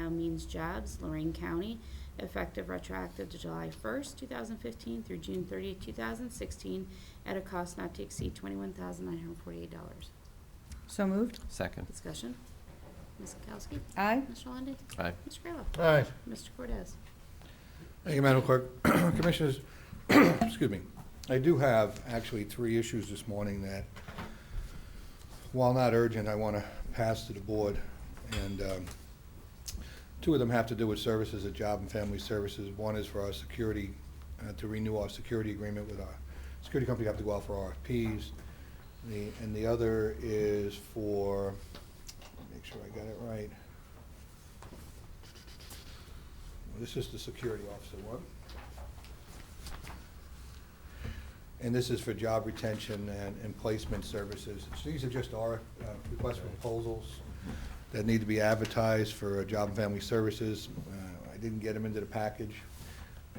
Women's Jobs, Lorraine County, effective retroactive to July 1st, 2015 through June 30th, 2016, at a cost not to exceed $21,948. So moved. Second. Discussion. Ms. Kowski? Aye. Mr. Lundey? Aye. Mr. Kayla? Aye. Mr. Cordez? Thank you, Madam Clerk. Commissioners, excuse me, I do have actually three issues this morning that, while not urgent, I want to pass to the board. And um, two of them have to do with services at Job and Family Services. One is for our security, uh, to renew our security agreement with our security company, have to go out for RFPs. The And the other is for, make sure I got it right. This is the security officer one. And this is for job retention and, and placement services. So these are just our uh, requests for proposals that need to be advertised for uh, Job and Family Services. Uh, I didn't get them into the package.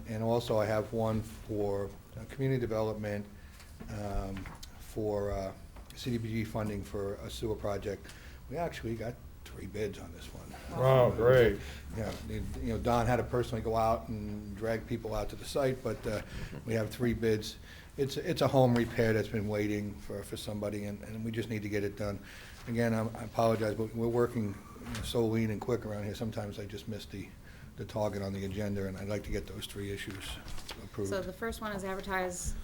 And also I have one for uh, community development, um, for uh, CDBG funding for a sewer project. We actually got three bids on this one. Wow, Oh, great. Yeah, you know, Don had to personally go out and drag people out to the site, but uh, we have three bids. It's, it's a home repair that's been waiting for, for somebody, and, and we just need to get it done. Again, I'm- I apologize, but we're working so lean and quick around here, sometimes I just miss the, the target on the agenda, and I'd like to get those three issues approved. So the first one is advertise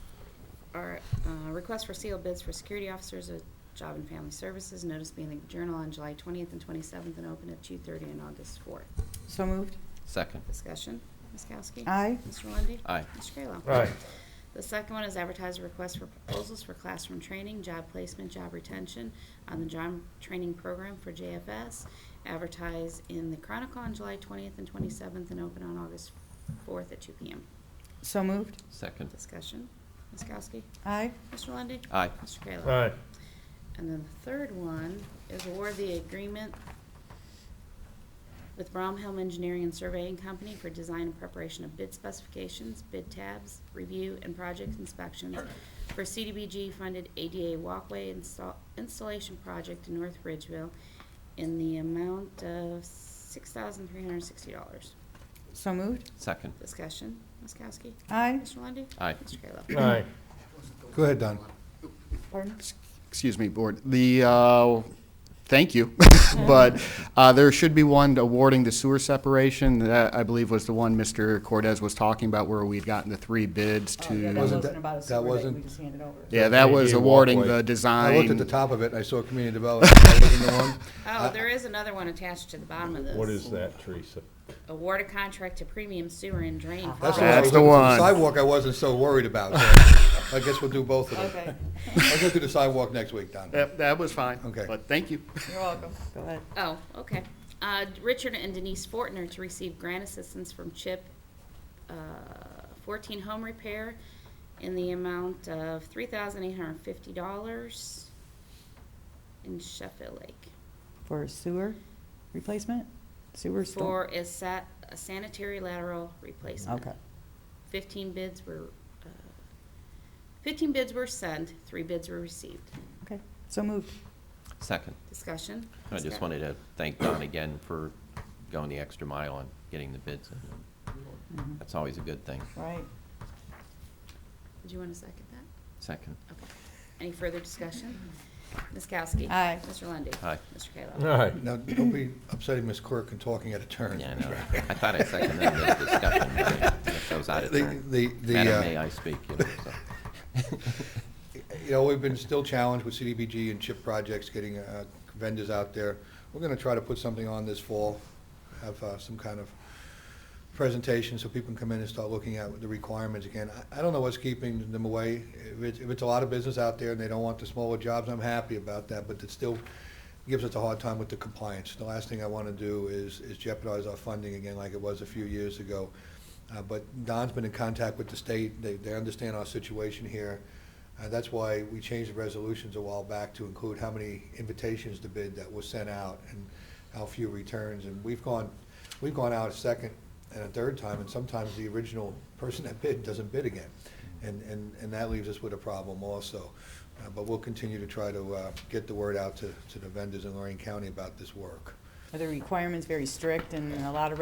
our uh, request for sealed bids for security officers at Job and Family Services, notice being in the Journal on July 20th and 27th, and open at 2:30 on August 4th. So moved. Second. Discussion, Ms. Kowski? Aye. Mr. Lundey? Aye. Mr. Kayla? Aye. The second one is advertise a request for proposals for classroom training, job placement, job retention on the job training program for JFS. Advertise in the Chronicle on July 20th and 27th, and open on August 4th at 2 PM. So moved. Second. Discussion, Ms. Kowski? Aye. Mr. Lundy. Aye. Mr. Kayla? Aye. And then the third one is award the agreement with Bromhelm Engineering and Surveying Company for design and preparation of bid specifications, bid tabs, review, and project inspections for CDBG-funded ADA walkway install- installation project in North Ridgeville in the amount of $6,360. So moved. Second. Discussion, Ms. Kowski? Aye. Mr. Lundy. Aye. Mr. Kayla? Aye. Go ahead, Don. Pardon? Excuse me, Board. The, uh, thank you, but uh, there should be one awarding the sewer separation. That, I believe, was the one Mr. Cortez was talking about where we'd gotten the three bids Oh, That to. wasn't- wasn't about a that sewer date, we wasn't- just handed over. Yeah, that was awarding Walkway. the I design. looked at the top of it, and I saw community development. That wasn't the one. Oh, there is another one attached to the bottom of this. What is that, Teresa? award a contract to premium sewer and drain. That's for- I That's was the looking for. one. Sidewalk I wasn't so worried about, so I guess we'll do both of them. Okay, I'll go through the sidewalk next week, Don. That, that was fine. Okay. But thank you. you're welcome. Go ahead. Oh, okay. Uh, Richard and Denise Fortner to receive grant assistance from CHIP, uh, fourteen home repair in the amount of three thousand eight hundred and fifty dollars in Sheffield Lake. For sewer replacement? Sewer still? For a sat, a sanitary lateral replacement. Okay. Fifteen bids were, uh, fifteen bids were sent, three bids were received. Okay, so moved. Second. Discussion? I just Scott? wanted to thank Don again for going the extra mile on getting the bids. in. Mhm. That's always a good thing. Right. Do you want to second that? Second. Okay. Any further discussion? Ms. Kowski? Aye. Mr. Lundy. Aye. Mr. Kayla? Aye. Now, don't be upsetting Ms. Quirk and talking at a turn. Yeah, I know. I thought I seconded the discussion, but I guess I was out of The- turn. the- the, Madam uh, May I speak, you know, so. You know, we've been still challenged with CDBG and chip projects, getting uh, vendors out there. We're going to try to put something on this fall, have uh, some kind of presentation so people can come in and start looking at the requirements again. I- I don't know what's keeping them away. If it's, if it's a lot of business out there and they don't want the smaller jobs, I'm happy about that, but it still gives us a hard time with the compliance. The last thing I want to do is is jeopardize our funding again like it was a few years ago. Uh, But Don's been in contact with the state, they, they understand our situation here. Uh, That's why we changed the resolutions a while back to include how many invitations to bid that was sent out and how few returns. And we've gone, we've gone out a second and a third time, and sometimes the original person that bid doesn't bid again. And, and, and that leaves us with a problem also. Uh, But we'll continue to try to uh, get the word out to, to the vendors in Lorraine County about this work. Are the requirements very strict and a lot of